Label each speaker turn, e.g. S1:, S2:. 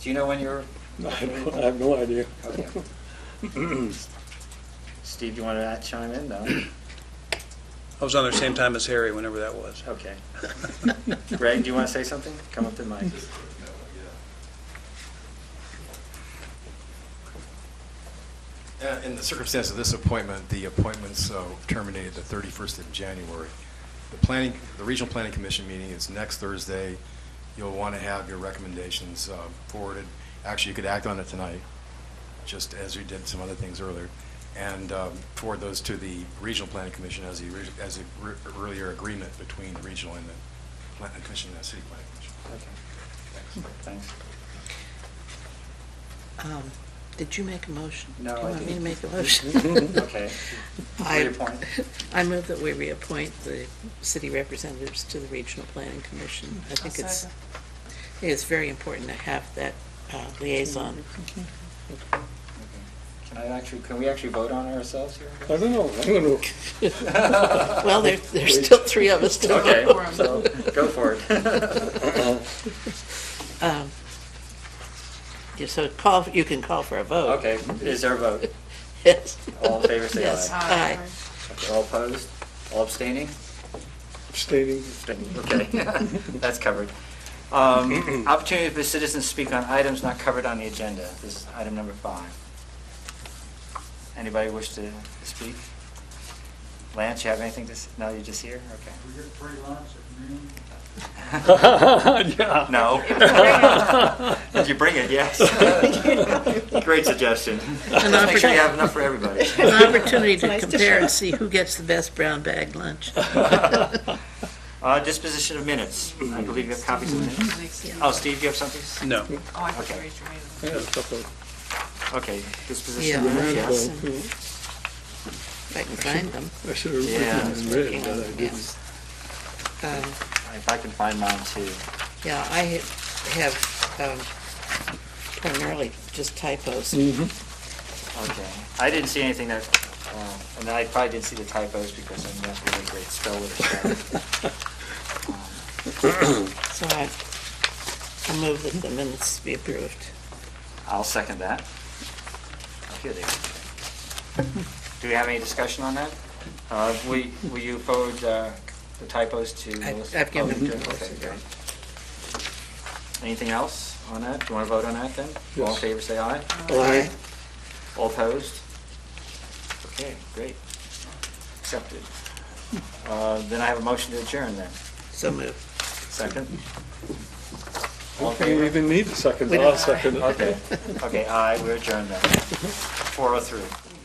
S1: Do you know when you're,
S2: I have I have no idea.
S1: okay. Steve, do you want to chime in? No?
S3: I was on there same time as Harry, whenever that was.
S1: Okay. Greg, do you want to say something? Come up to the mic.
S4: Uh, In the circumstance of this appointment, the appointments uh, terminated the 31st of January. The planning, the Regional Planning Commission meeting is next Thursday. You'll want to have your recommendations uh, forwarded. Actually, you could act on it tonight, just as you did some other things earlier, and um, forward those to the Regional Planning Commission as the, orig- as the re- earlier agreement between the regional and the planning commission and the city planning commission.
S1: Okay,
S4: Thanks.
S1: Thanks.
S5: Um, Did you make a motion?
S1: No,
S5: Do
S1: I
S5: you want me to
S1: didn't.
S5: make a motion?
S1: Okay.
S5: I-
S1: Reappoint.
S5: I move that we reappoint the city representatives to the Regional Planning Commission. I think it's, I think it's very important to have that uh, liaison.
S1: Okay. Can I actually, can we actually vote on ourselves here?
S2: I don't know, I don't know.
S5: Well, there, there's still three of us to
S1: Okay,
S5: vote.
S1: so go for it.
S5: Um, yeah, So call, you can call for a vote.
S1: Okay, is there a vote?
S5: Yes.
S1: All in favor, say
S5: Yes,
S1: aye.
S5: aye.
S1: Okay, All opposed? All abstaining?
S2: Stating,
S1: Okay, that's covered. Um, Opportunity for citizens to speak on items not covered on the agenda. This is item number five. Anybody wish to speak? Lance, you have anything to, s- no, you're just here? Okay.
S6: We're here at Prairie Lights at noon.
S2: yeah.
S1: No. Did you bring it? Yes. Great suggestion. Just make sure you have enough for everybody.
S5: An opportunity to compare and see who gets the best brown bag lunch.
S1: Uh, Disposition of minutes. I believe you have copies of the minutes. Oh, Steve, you have something?
S3: No.
S7: Oh, I forgot to raise your hand.
S2: I had a couple of
S1: Okay, disposition
S5: Yeah,
S1: of minutes, yes.
S5: yes. If I can find them.
S2: I should have
S1: Yeah.
S2: written in red, but I didn't.
S5: Yes. Um,
S1: If I can find mine too.
S5: Yeah, I ha- have um, primarily just typos.
S1: Okay. I didn't see anything that, uh, and I probably didn't see the typos because I'm not really a great speller. um, so.
S5: So I I move that the minutes be approved.
S1: I'll second that. Oh, Okay, there. Do we have any discussion on that? Uh, Will will you forward uh, the typos to
S5: I-
S1: Melissa?
S5: I've given
S1: Oh, you
S5: them
S1: did?
S5: to
S1: Okay,
S5: Melissa.
S1: great. Anything else on that? Do you want to vote on that then? All in
S2: Yes.
S1: favor, say aye.
S2: Aye.
S1: All opposed? Okay, great. Accepted. Uh, Then I have a motion to adjourn then.
S5: So moved.
S1: Second? All in
S2: Okay, you
S1: favor?
S2: even need a second,
S5: We
S2: I'll
S5: don't-
S2: second it.
S1: oh Okay, okay, aye, we're adjourned then. 4:03.